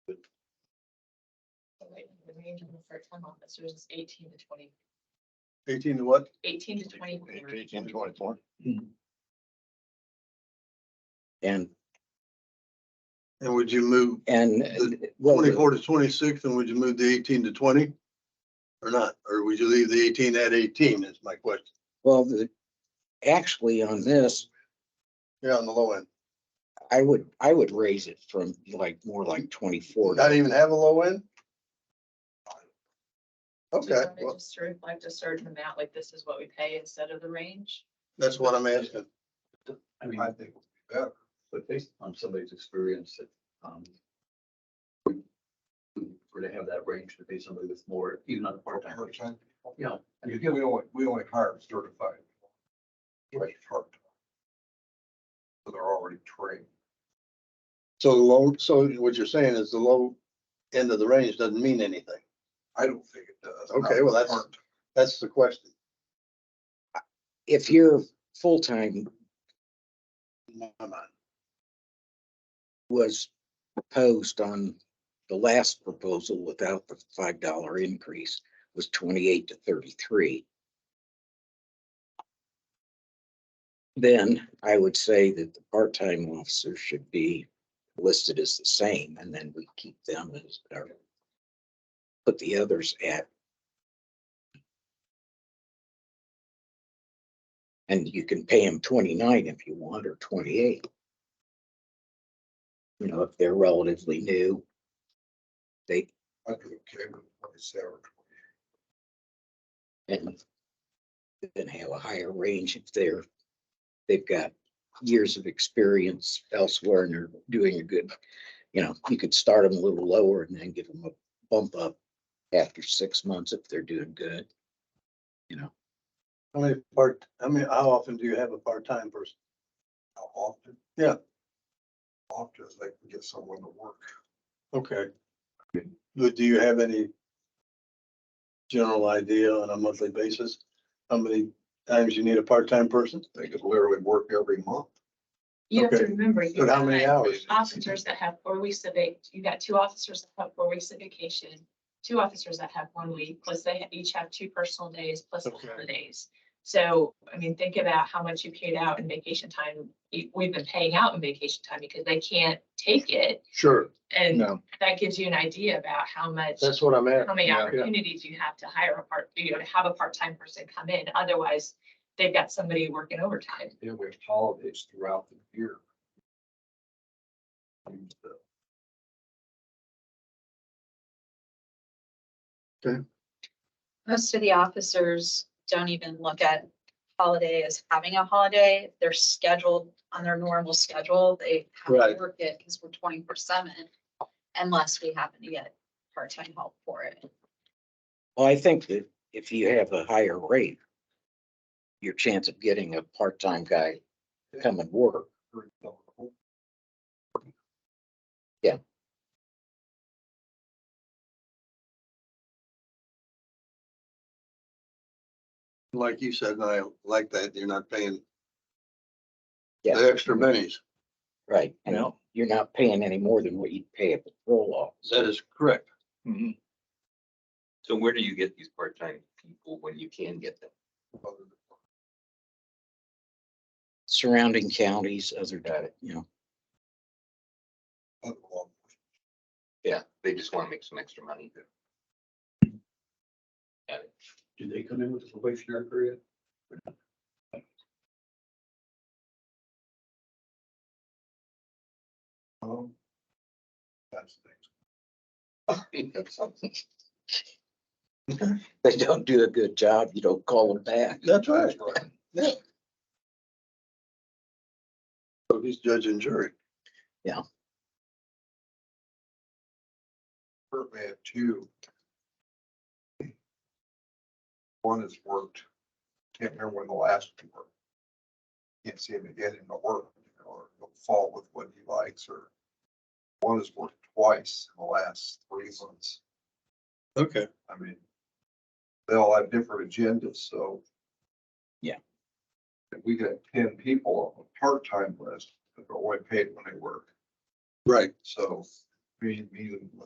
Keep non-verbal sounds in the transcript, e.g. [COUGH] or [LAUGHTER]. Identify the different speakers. Speaker 1: the range of the part-time officers is eighteen to twenty,
Speaker 2: Eighteen to what?
Speaker 1: eighteen to twenty.
Speaker 3: Eighteen twenty-four.
Speaker 4: And,
Speaker 2: And would you move
Speaker 4: and, well, the-
Speaker 2: twenty-four to twenty-six and would you move the eighteen to twenty? Or not? Or would you leave the eighteen at eighteen is my question.
Speaker 4: well, the, actually on this,
Speaker 2: Yeah, on the low end.
Speaker 4: I would, I would raise it from like, more like twenty-four.
Speaker 2: Not even have a low end? Okay, well,
Speaker 1: Just to reflect a certain amount, like this is what we pay instead of the range.
Speaker 2: that's what I'm asking.
Speaker 5: I mean,
Speaker 3: I think,
Speaker 5: but based on somebody's experience, it, um, we were to have that range to pay somebody with more, even on a part-time. basis.
Speaker 3: Part-time.
Speaker 5: You know,
Speaker 3: you get, we only, we only hire certified. Right, part. So they're already trained.
Speaker 2: So the low, so what you're saying is the low end of the range doesn't mean anything.
Speaker 3: I don't think it does.
Speaker 2: Okay, well, that's-
Speaker 3: Part-
Speaker 2: That's the question.
Speaker 4: If you're full-time
Speaker 2: in my mind.
Speaker 4: was proposed on the last proposal without the five dollar increase was twenty-eight to thirty-three. Then I would say that the part-time officer should be listed as the same and then we keep them as, or put the others at. And you can pay them twenty-nine if you want or twenty-eight you know, if they're relatively new. They,
Speaker 3: I'd be okay with twenty-seven.
Speaker 4: and then have a higher range if they're, they've got years of experience elsewhere and they're doing a good, you know, you could start them a little lower and then give them a bump up after six months if they're doing good.
Speaker 2: How many part, I mean, how often do you have a part-time person?
Speaker 3: How often?
Speaker 2: Yeah.
Speaker 3: Often as they can get someone to work.
Speaker 2: Okay. Do do you have any general idea on a monthly basis? How many times you need a part-time person?
Speaker 3: They could literally work every month.
Speaker 1: You have to
Speaker 2: Okay.
Speaker 1: remember. you
Speaker 2: But how many
Speaker 1: got
Speaker 2: hours?
Speaker 1: Officers that have four weeks of vac, you got two officers that have four weeks of vacation, two officers that have one week, plus they each have two personal days, plus the
Speaker 2: Okay.
Speaker 1: holidays. So, I mean, think about how much you paid out in vacation time. You- We've been paying out in vacation time because they can't take it.
Speaker 2: Sure,
Speaker 1: And
Speaker 4: No.
Speaker 1: that gives you an idea about how much,
Speaker 2: that's what I'm asking.
Speaker 1: how many
Speaker 2: Yeah.
Speaker 1: opportunities you have to hire a part, you know, to have a part-time person come in. Otherwise, they've got somebody working overtime.
Speaker 3: Then we have holidays throughout the year. And, uh,
Speaker 6: Most of the officers don't even look at holiday as having a holiday. They're scheduled on their normal schedule. They have
Speaker 2: Right.
Speaker 6: to work it because we're twenty-four seven unless we happen to get part-time help for it.
Speaker 4: Well, I think that if you have a higher rate, your chance of getting a part-time guy to come and work
Speaker 3: very difficult.
Speaker 2: Like you said, and I like that, you're not paying
Speaker 4: Yeah.
Speaker 2: the extra bennies.
Speaker 4: Right, you know, you're not paying any more than what you'd pay at the roll off.
Speaker 2: That is correct.
Speaker 7: So where do you get these part-time people when you can get them?
Speaker 4: Surrounding counties, other data, you know,
Speaker 3: Other law
Speaker 7: Yeah, they just want to make some extra money.
Speaker 5: do they come in with a probationary period?
Speaker 3: enforcement, Um, that's the thing.
Speaker 7: [LAUGHS]
Speaker 4: they don't do a good job, you don't call them back.
Speaker 2: That's right. Yeah. So he's judge and jury.
Speaker 3: Kurt had two. One has worked, can't remember when the last two were. Can't see him again in the work, you know, or he'll fall with what he likes, or one has worked twice in the last three months.
Speaker 2: Okay.
Speaker 3: I mean, they all have different agendas, so.
Speaker 4: Yeah.
Speaker 3: If we got ten people on a part-time list, they're only paid when they work,
Speaker 2: Right.
Speaker 3: so, I mean, even